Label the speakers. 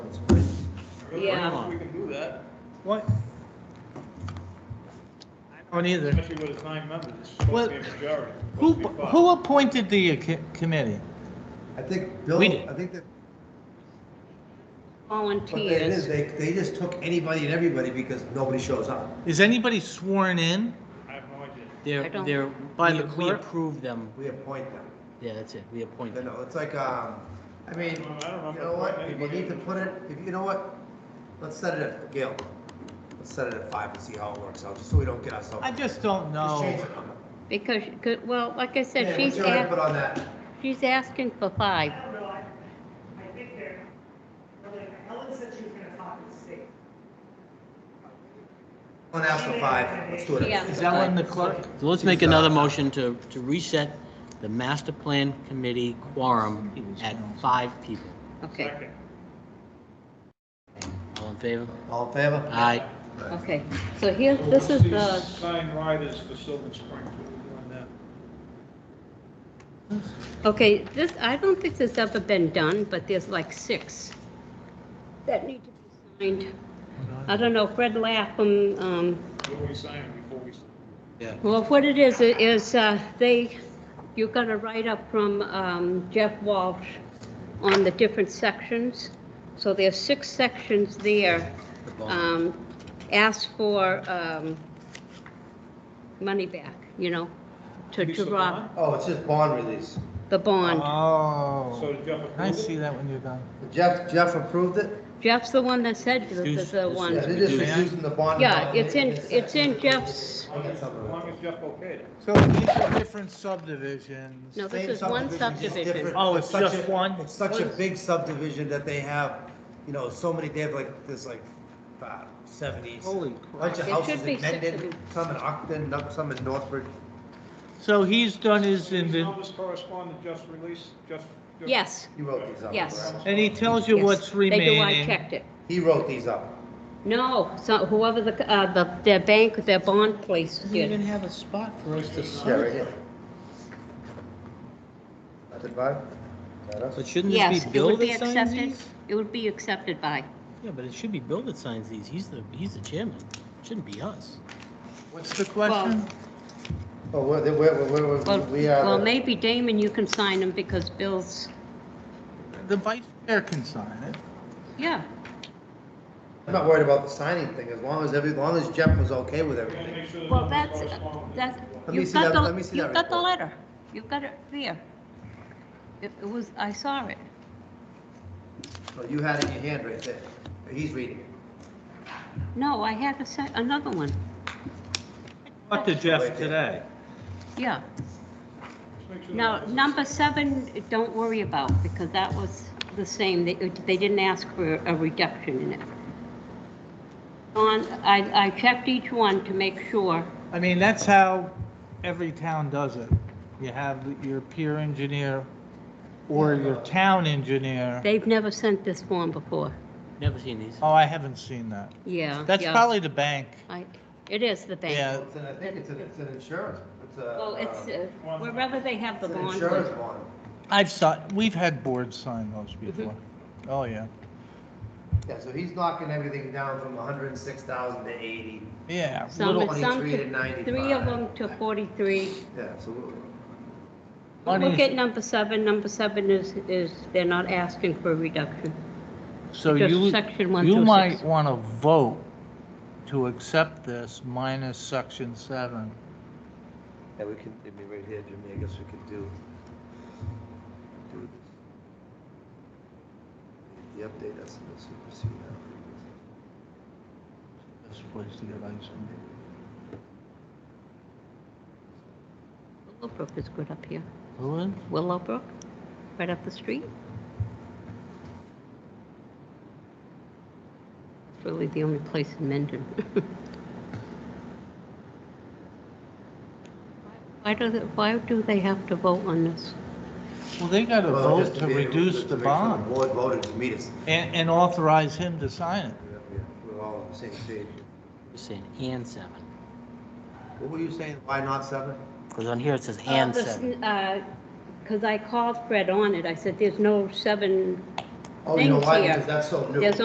Speaker 1: bring
Speaker 2: Yeah.
Speaker 1: them, we can do that,
Speaker 3: What? I don't either.
Speaker 1: especially with it's nine members, it's
Speaker 3: Well,
Speaker 1: supposed to be a majority. It's
Speaker 3: Who,
Speaker 1: supposed to be five.
Speaker 3: who appointed the uh, co- committee?
Speaker 4: I think, Bill,
Speaker 3: We did.
Speaker 4: I think that, what they it is,
Speaker 2: volunteers.
Speaker 4: they, they just took anybody and everybody because nobody shows up.
Speaker 3: Is anybody sworn in?
Speaker 1: I have no idea.
Speaker 2: I
Speaker 5: They're,
Speaker 2: don't-
Speaker 5: they're,
Speaker 3: By
Speaker 5: we-
Speaker 3: the
Speaker 5: we
Speaker 3: clerk?
Speaker 5: approve them.
Speaker 4: We appoint them.
Speaker 5: Yeah, that's it. We appoint
Speaker 4: You
Speaker 5: them.
Speaker 4: know, it's like, um, I mean,
Speaker 1: Well, I don't know if
Speaker 4: you
Speaker 1: I
Speaker 4: know what,
Speaker 1: appoint
Speaker 4: if you
Speaker 1: anybody.
Speaker 4: need to put it, if, you know what? Let's set it at, Gail, let's set it at five and see how it works out, just so we don't get ourselves.
Speaker 3: I just
Speaker 4: Just
Speaker 3: don't know.
Speaker 4: change the number.
Speaker 2: Because, she could- well, like I
Speaker 4: Hey,
Speaker 2: said,
Speaker 4: what's
Speaker 2: she's,
Speaker 4: your input
Speaker 2: ask-
Speaker 4: on that?
Speaker 2: she's asking for five.
Speaker 6: I don't know, I, I think they're, really, Helen said she was gonna talk to the state.
Speaker 4: On after five, let's do it.
Speaker 2: Yeah.
Speaker 3: Is that one the clerk?
Speaker 5: So let's make
Speaker 4: uh,
Speaker 5: another motion to, to reset the master plan committee quorum at five people.
Speaker 3: Eh.
Speaker 2: Okay,
Speaker 1: Second.
Speaker 5: All in favor?
Speaker 4: All in favor?
Speaker 5: Aye.
Speaker 2: okay. So here, this is the,
Speaker 1: Sign riders for Sylvan Springs, we're doing that.
Speaker 2: okay, this, I don't think this has ever been done, but there's like six that need to be signed. I don't know, Fred Lapham, um,
Speaker 1: What we signing before we,
Speaker 2: Well, what it is, it is uh, they, you got a write-up from um, Jeff Walsh on the different sections. So there's six sections there. Um, Ask for um, money back, you know, to
Speaker 1: Release
Speaker 2: to
Speaker 1: the
Speaker 2: rob
Speaker 4: Oh, it's just bond release.
Speaker 2: the
Speaker 5: Uh,
Speaker 2: bond.
Speaker 1: so
Speaker 3: Oh,
Speaker 1: did Jeff approve
Speaker 3: I
Speaker 1: it?
Speaker 3: see that when you're done.
Speaker 4: Jeff, Jeff approved it?
Speaker 2: Jeff's the one that said that there's
Speaker 5: Excuse-
Speaker 2: the
Speaker 5: this
Speaker 4: Yeah,
Speaker 5: is-
Speaker 2: one.
Speaker 4: they're just
Speaker 5: Reduce.
Speaker 4: reducing the bond.
Speaker 2: Yeah, it's in,
Speaker 4: amount.
Speaker 2: it's in Jeff's,
Speaker 4: I got
Speaker 1: As
Speaker 4: something.
Speaker 1: long as Jeff okayed it.
Speaker 3: So these are different subdivisions.
Speaker 2: no, this
Speaker 4: Same
Speaker 2: is one
Speaker 4: subdivision, just
Speaker 2: subdivision.
Speaker 4: different.
Speaker 3: Oh, it's
Speaker 4: such
Speaker 3: just
Speaker 4: a-
Speaker 3: one?
Speaker 4: It's such a big subdivision that they have, you know, so many, they have like, there's like about seventy.
Speaker 3: Holy
Speaker 4: Bunch of
Speaker 2: There should
Speaker 4: houses
Speaker 2: be
Speaker 4: in
Speaker 2: six of
Speaker 4: Mendon,
Speaker 2: them.
Speaker 4: some in Ockton, no- some in Northbridge.
Speaker 3: So he's done his
Speaker 1: These
Speaker 3: inven,
Speaker 1: numbers correspond to Jeff's release, Jeff? Jeff-
Speaker 2: Yes,
Speaker 4: He wrote these up.
Speaker 2: Yes.
Speaker 4: correct?
Speaker 3: and he tells you
Speaker 2: yes.
Speaker 3: what's
Speaker 2: They do, I
Speaker 3: remaining.
Speaker 2: checked it.
Speaker 4: He wrote these up.
Speaker 2: No, so whoever the, uh, the, their bank, their bond place
Speaker 5: Doesn't
Speaker 2: did.
Speaker 5: even have a spot for us to
Speaker 4: Yeah, right
Speaker 5: sign.
Speaker 4: here. That's it, Bob? Is that us?
Speaker 5: But shouldn't this
Speaker 2: Yes,
Speaker 5: be
Speaker 2: it
Speaker 5: Bill
Speaker 2: would be
Speaker 5: that signs
Speaker 2: accepted,
Speaker 5: these?
Speaker 2: it would be accepted by,
Speaker 5: Yeah, but it should be Bill that signs these. He's the, he's the chairman. Shouldn't be us.
Speaker 3: What's the question?
Speaker 4: Oh, we're, we're, we're,
Speaker 2: well,
Speaker 4: we're- we are.
Speaker 2: well,
Speaker 4: the-
Speaker 2: maybe Damon, you can sign them because Bill's,
Speaker 3: The vice chair can sign it.
Speaker 2: yeah,
Speaker 4: I'm not worried about the signing thing, as long as every, as long as Jeff was okay with
Speaker 1: We gotta
Speaker 4: everything.
Speaker 1: make sure the
Speaker 2: well,
Speaker 1: numbers
Speaker 2: that's,
Speaker 1: correspond with
Speaker 2: that's,
Speaker 4: me
Speaker 2: you've
Speaker 4: see
Speaker 2: got
Speaker 4: that- let me
Speaker 2: the,
Speaker 4: see
Speaker 2: you've
Speaker 4: that
Speaker 2: got the
Speaker 4: report.
Speaker 2: letter, you've got it there. It it was, I saw it,
Speaker 4: So you had it in your hand right there. He's reading it.
Speaker 2: no, I had a se- another one,
Speaker 3: Talked to Jeff today.
Speaker 2: yeah.
Speaker 1: Just make sure the
Speaker 2: Now,
Speaker 1: numbers are-
Speaker 2: number seven, don't worry about, because that was the same, they, they didn't ask for a reduction in it. On, I, I checked each one to make sure,
Speaker 3: I mean, that's how every town does it. You have your peer engineer or your town engineer.
Speaker 2: they've never sent this form before,
Speaker 5: Never seen these.
Speaker 3: Oh, I haven't seen that.
Speaker 2: yeah.
Speaker 3: That's
Speaker 2: yeah.
Speaker 3: probably the bank.
Speaker 2: I- It is the bank.
Speaker 3: Yeah.
Speaker 4: Well, Uh, it's an- I think it's an, it's an insurance, it's a.
Speaker 2: Well, it's,
Speaker 4: um,
Speaker 2: uh, wherever they have the
Speaker 4: It's an
Speaker 2: bond.
Speaker 4: insurance bond.
Speaker 3: I've saw, we've had boards sign those
Speaker 2: Mm-hmm.
Speaker 3: before. Oh, yeah.
Speaker 4: Yeah, so he's knocking everything down from hundred and six thousand to eighty.
Speaker 3: Yeah.
Speaker 2: Some,
Speaker 4: Little
Speaker 2: some,
Speaker 4: 23 to
Speaker 2: to- three of
Speaker 4: 95.
Speaker 2: them to forty-three.
Speaker 4: Yeah, so
Speaker 2: Look
Speaker 3: Money's-
Speaker 2: at number seven, number seven is, is, they're not asking for a reduction.
Speaker 3: So
Speaker 2: Just
Speaker 3: you,
Speaker 2: section one
Speaker 3: you
Speaker 2: through
Speaker 3: might
Speaker 2: six.
Speaker 3: want to vote to accept this minus section seven.
Speaker 4: Yeah, we can, it'd be right here, Jimmy, I guess we could do. do this. The update that's in the supersede.
Speaker 3: Best place to get ice cream.
Speaker 2: Willowbrook is good up here.
Speaker 5: Who is?
Speaker 2: Willowbrook, right up the street. It's really the only place in Mendon. Why do, they- why do they have to vote on this?
Speaker 3: Well, they got to
Speaker 4: Well,
Speaker 3: vote
Speaker 4: just
Speaker 3: to
Speaker 4: be-
Speaker 3: reduce
Speaker 4: just
Speaker 3: the
Speaker 4: to make sure
Speaker 3: bond
Speaker 4: Board voted to meet us.
Speaker 3: and, and authorize him to sign it.
Speaker 4: Yeah, yeah, We're all on the same page.
Speaker 5: It's saying and seven.
Speaker 4: What were you saying, why not seven?
Speaker 5: Because on here it says
Speaker 2: Uh,
Speaker 5: and seven.
Speaker 2: Because I called Fred on it, I said, there's no seven
Speaker 4: Oh, you know
Speaker 2: Things
Speaker 4: Oh, why?
Speaker 2: here.
Speaker 4: Because that's so new.
Speaker 2: There's